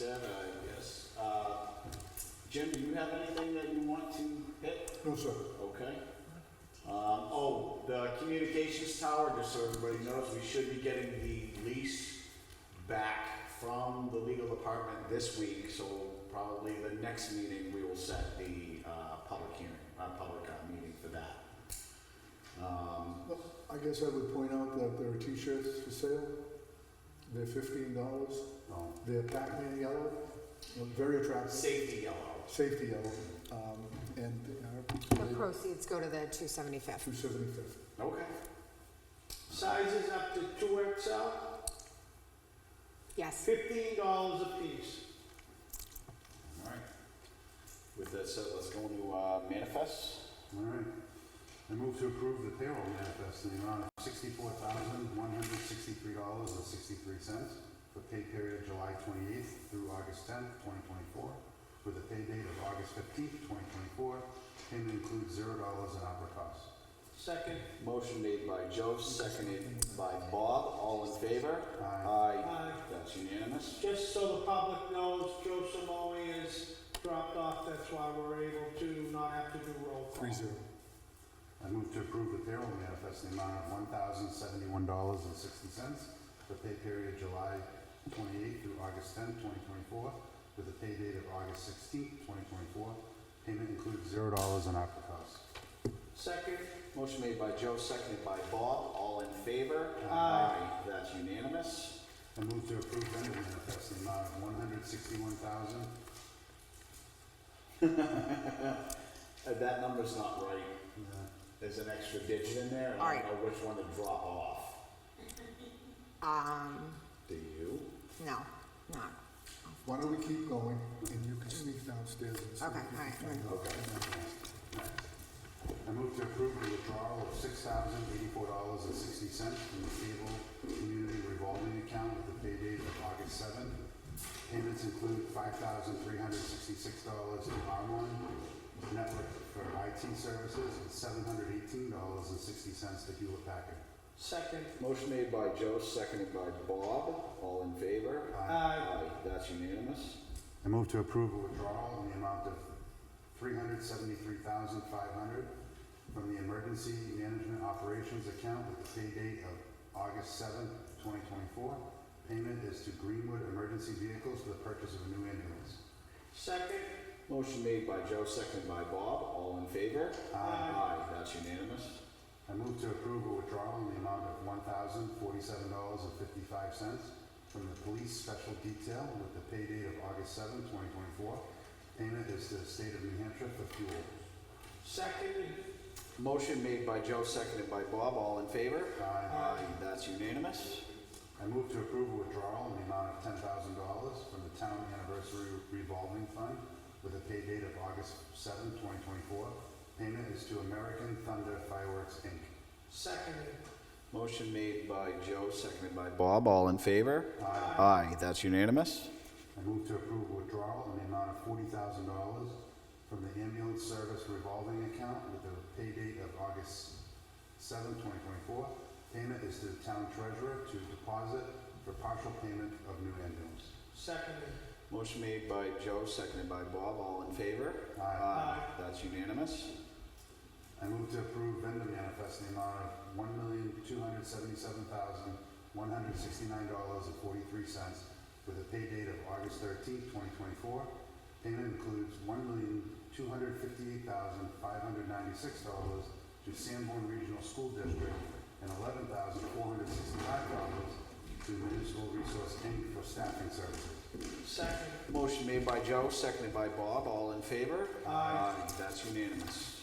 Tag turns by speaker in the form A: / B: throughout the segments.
A: Then, uh, yes. Uh, Jim, do you have anything that you want to hit?
B: No, sir.
A: Okay. Um, oh, the communications tower, just so everybody knows, we should be getting the lease back from the legal department this week, so probably the next meeting, we will set the, uh, public hearing, uh, public, uh, meeting for that. Um,
B: I guess I would point out that there are t-shirts for sale. They're fifteen dollars.
A: oh,
B: They're Pac-Man yellow, Look very attractive,
A: safety yellow.
B: safety yellow, um, and they
C: The
B: are
C: proceeds go to the 275th.
B: two seventy-fifth.
A: Okay. Sizes up to two XL?
C: Yes.
A: Fifteen dollars a piece. All right. With that said, let's go into uh, manifests.
D: All right. I move to approve the payroll manifest in the amount of sixty-four thousand, one hundred sixty-three dollars and sixty-three cents for pay period July twenty-eighth through August tenth, twenty twenty-four, with a pay date of August fifteenth, twenty twenty-four. Payment includes zero dollars in opera costs.
A: Second. Motion made by Joe, seconded by Bob. All in favor?
D: Aye.
A: Aye. That's unanimous.
E: Just so the public knows, Joe Simone is dropped off, that's why we're able to not have to do roll call.
B: Three zero.
D: I move to approve the payroll manifest in the amount of one thousand, seventy-one dollars and sixty cents for pay period July twenty-eighth through August tenth, twenty twenty-four, with a pay date of August sixteenth, twenty twenty-four. Payment includes zero dollars in opera costs.
E: Second,
A: Motion made by Joe, seconded by Bob. All in favor?
E: Aye.
A: That's unanimous.
D: I move to approve vendor manifest in the amount of one hundred sixty-one thousand.
A: Uh, That number's not right. There's an extra digit in there. and I don't
C: All
A: know which one to drop off.
C: Um,
A: Do you?
C: no, not.
B: Why don't we keep going and you can sneak downstairs and see if you
C: Okay, all
B: can
C: right,
B: find out.
A: Okay.
D: I move to approve the withdrawal of six thousand eighty-four dollars and sixty cents from the cable community revolving account with a pay date of August seventh. Payments include five thousand three hundred sixty-six dollars in R one network for IT services and seven hundred eighteen dollars and sixty cents to Hewlett Packard.
E: second,
A: Motion made by Joe, seconded by Bob. All in favor?
E: uh,
A: That's unanimous.
D: I move to approve a withdrawal in the amount of three hundred seventy-three thousand five hundred from the Emergency Management Operations Account with the pay date of August seventh, twenty twenty-four. Payment is to Greenwood Emergency Vehicles for the purchase of a new ambulance.
E: second,
A: Motion made by Joe, seconded by Bob. All in favor?
E: Aye.
A: That's unanimous.
D: I move to approve a withdrawal in the amount of one thousand forty-seven dollars and fifty-five cents from the Police Special Detail with the pay date of August seventh, twenty twenty-four. Payment is to the State of New Hampshire for fuel.
E: second,
A: Motion made by Joe, seconded by Bob. All in favor?
D: Aye.
A: That's unanimous.
D: I move to approve a withdrawal in the amount of ten thousand dollars from the town anniversary revolving fund with a pay date of August seventh, twenty twenty-four. Payment is to American Thunder Fireworks, Inc.
E: second,
A: Motion made by Joe, seconded by Bob. All in favor?
D: Aye.
A: Aye. That's unanimous.
D: I move to approve a withdrawal in the amount of forty thousand dollars from the ambulance service revolving account with a pay date of August seventh, twenty twenty-four. Payment is to the town treasurer to deposit for partial payment of new ambulance.
E: second,
A: Motion made by Joe, seconded by Bob. All in favor?
D: Aye.
A: That's unanimous.
D: I move to approve vendor manifest in the amount of one million, two hundred seventy-seven thousand, one hundred sixty-nine dollars and forty-three cents with a pay date of August thirteenth, twenty twenty-four. Payment includes one million, two hundred fifty-eight thousand, five hundred ninety-six dollars to Sanborn Regional School District and eleven thousand, four hundred sixty-five dollars to Municipal Resource Inc. for staffing services.
E: second,
A: Motion made by Joe, seconded by Bob. All in favor?
E: Aye.
A: That's unanimous.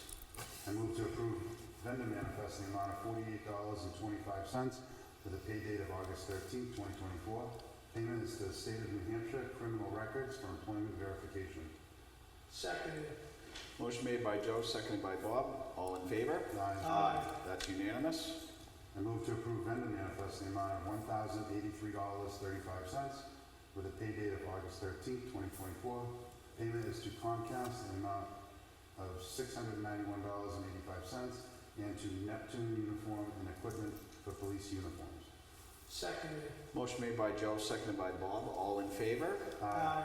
D: I move to approve vendor manifest in the amount of forty-eight dollars and twenty-five cents for the pay date of August thirteenth, twenty twenty-four. Payment is to the State of New Hampshire Criminal Records for employment verification.
E: second,
A: Motion made by Joe, seconded by Bob. All in favor?
D: Aye.
E: Aye.
A: That's unanimous.
D: I move to approve vendor manifest in the amount of one thousand eighty-three dollars, thirty-five cents for the pay date of August thirteenth, twenty twenty-four. Payment is to Comcast in the amount of six hundred ninety-one dollars and eighty-five cents and to Neptune Uniform and Equipment for police uniforms.
E: second,
A: Motion made by Joe, seconded by Bob. All in favor?
E: uh,